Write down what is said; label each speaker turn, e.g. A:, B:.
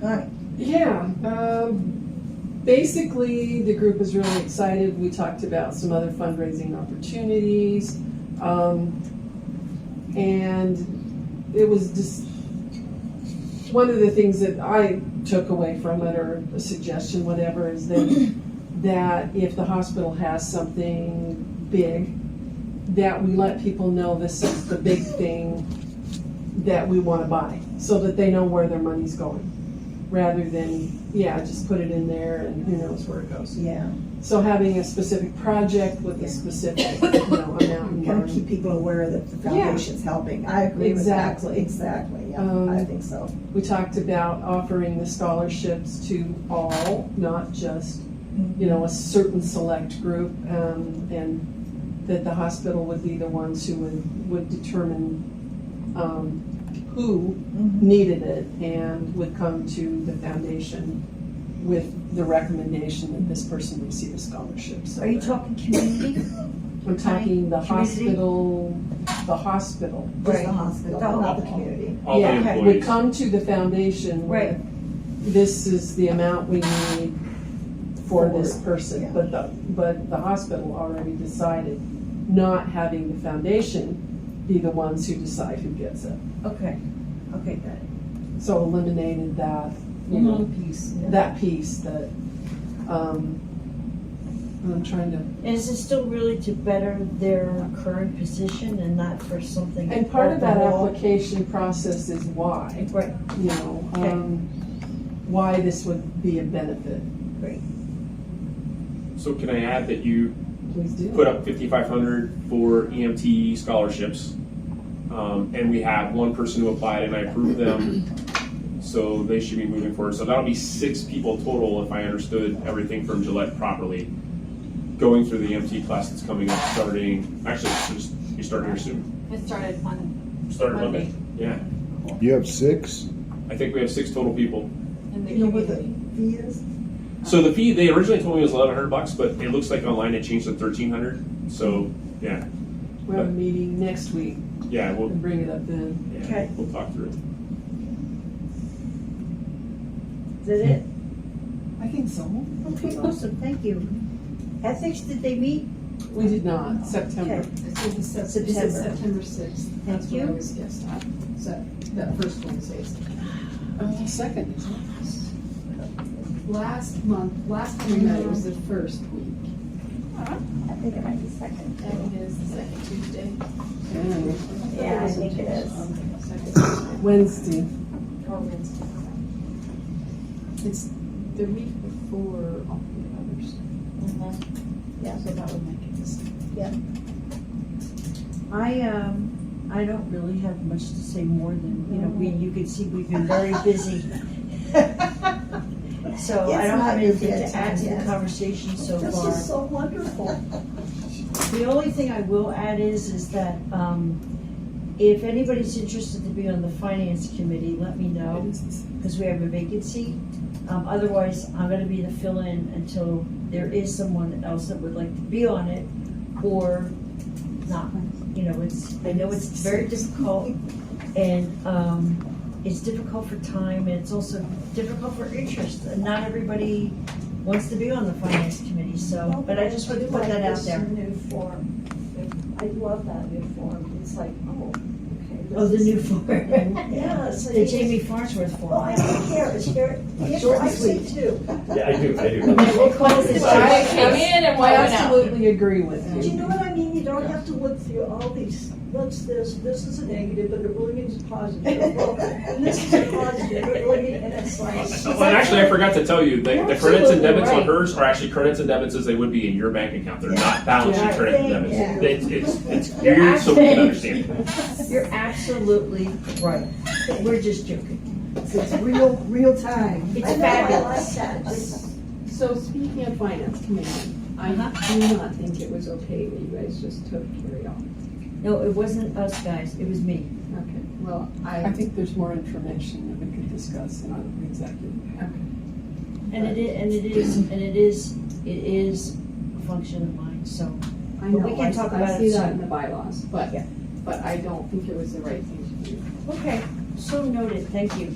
A: Connie?
B: Yeah, um, basically, the group is really excited. We talked about some other fundraising opportunities. Um, and it was just, one of the things that I took away from it or a suggestion, whatever, is that, that if the hospital has something big, that we let people know this is the big thing that we wanna buy, so that they know where their money's going rather than, yeah, just put it in there and who knows where it goes.
A: Yeah.
B: So having a specific project with a specific, you know, amount.
A: Kind of
B: and-
A: keep people aware that the
B: Yeah.
A: foundation's helping. I agree with that.
B: Exactly.
A: Exactly, yeah,
B: Um,
A: I think so.
B: We talked about offering the scholarships to all, not just, you know, a certain select group. um, And that the hospital would be the ones who would, would determine um, who
A: Mhm.
B: needed it and would come to the foundation with the recommendation that this person receive a scholarship. So
C: Are you
B: that-
C: talking community?
B: We're talking the
C: Community?
B: hospital, the hospital.
A: Just
C: Right.
A: the hospital,
C: The
A: not the
C: hospital.
A: community.
D: All the
B: Yeah,
C: okay.
B: Would
D: employees.
B: come to the foundation with, this is the amount we need for this
A: yeah.
B: person. But the, but the hospital already decided, not having the foundation be the ones who decide who gets it.
C: Okay, okay, got it.
B: So eliminated that, you know,
C: piece.
B: that piece that, um, I'm trying to,
C: And is it still really to better their current position and not for something?
B: and part of that
C: overall?
B: application process is why.
C: Right,
B: you know,
C: Okay.
B: um, why this would be a benefit.
D: So can I add that you
B: Please do.
D: put up fifty-five hundred for EMT scholarships? Um, and we had one person who applied and I approved them, so they should be moving forward. So that'll be six people total if I understood everything from Gillette properly. Going through the EMT class that's coming up, starting, actually, it's just, you start here soon.
E: It started on,
D: Started
E: Monday.
D: Yeah,
F: You have six?
D: I think we have six total people.
E: in the
A: You know what the
E: community.
A: fee is?
D: So the fee they originally told me was eleven hundred bucks, but it looks like online it changed to thirteen hundred. So yeah,
B: We have a meeting next week
D: yeah, we'll
B: and bring it up then.
D: yeah,
C: Okay.
D: we'll talk through it.
C: is that it?
B: I think so.
C: Okay, awesome, thank you. Ethics, did they meet?
B: We did not, September.
C: Okay.
E: It's in Sep-
C: September.
E: it's in September sixth. That's what I
C: you.
E: was guessed at, so, that first Wednesday.
B: Uh, Second.
E: Last month, last time we met, it was the first week.
G: I think it might be second.
E: That is the second Tuesday.
B: Yeah.
G: Yeah, I think it is.
E: Second Tuesday.
B: Oh. Wednesday.
E: Or Oh, Wednesday. It's the week before all the others.
C: Mhm.
G: Yeah.
E: So that would make it the second.
C: I, um, I don't really have much to say more than, you know, we, you can see we've been very busy. So
A: Yes,
C: I don't have
A: ma'am,
C: anything
A: yes,
C: to add to the
A: yes.
C: conversation so far.
A: This is so wonderful.
C: The only thing I will add is, is that, um, if anybody's interested to be on the finance committee, let me
B: Oh.
C: know, because we have a vacancy. Um, otherwise, I'm gonna be the fill-in until there is someone else that would like to be on it, or not. You know, it's, I know it's very difficult, and, um, it's difficult for time, and it's also difficult for interest, and not everybody wants to be on the finance committee, so, but I just wanted to put that out there.
G: I do like this new form. I love that new form. It's like, oh, okay. this
C: Oh, the
G: is-
C: new form.
G: Yeah, so
C: The
G: you
C: Jamie Farnsworth
G: Oh, I
C: form.
G: don't care. It's very, it's
C: Short and
G: actually too.
H: Yeah, I do, I do.
C: They call us the
E: I
C: giant
E: came in and
B: I
E: why went out.
B: absolutely agree with
A: Do
G: Do you
B: you.
G: know what I mean? You don't have to look through all these, what's this, this is a negative, but it really means positive. Well, And this is a positive, it really means, and it's like.
D: Well, Oh, and actually, I forgot to tell you, the, the credits and
C: Absolutely
D: debits on
C: right.
D: hers are actually credits and debits as they would be in your bank account. They're not balance sheet
C: Yeah.
D: credits and
A: Thank
D: debits. It's, it's, it's
C: You're
D: weird, so we can
C: actually-
D: understand.
C: You're absolutely right. We're just joking.
A: It's real, real time.
C: It's
G: I know, I
C: fabulous.
G: like that. It's-
B: So speaking of finance committee,
E: I
C: Uh-huh.
E: do not think it was okay that you guys just took Carrie off.
C: No, it wasn't us guys, it was me.
E: Okay, well,
B: I
E: I,
B: think there's more information that we could discuss in our executive.
C: And it is, and it is, and it is, it is a function of mine, so.
E: I
C: But
E: know,
C: we can
E: I
C: talk
E: I
C: about
E: see
C: it
E: that
C: soon.
E: in the bylaws, but,
C: Yeah.
E: but I don't think it was the right thing to do.
C: Okay, so noted, thank you.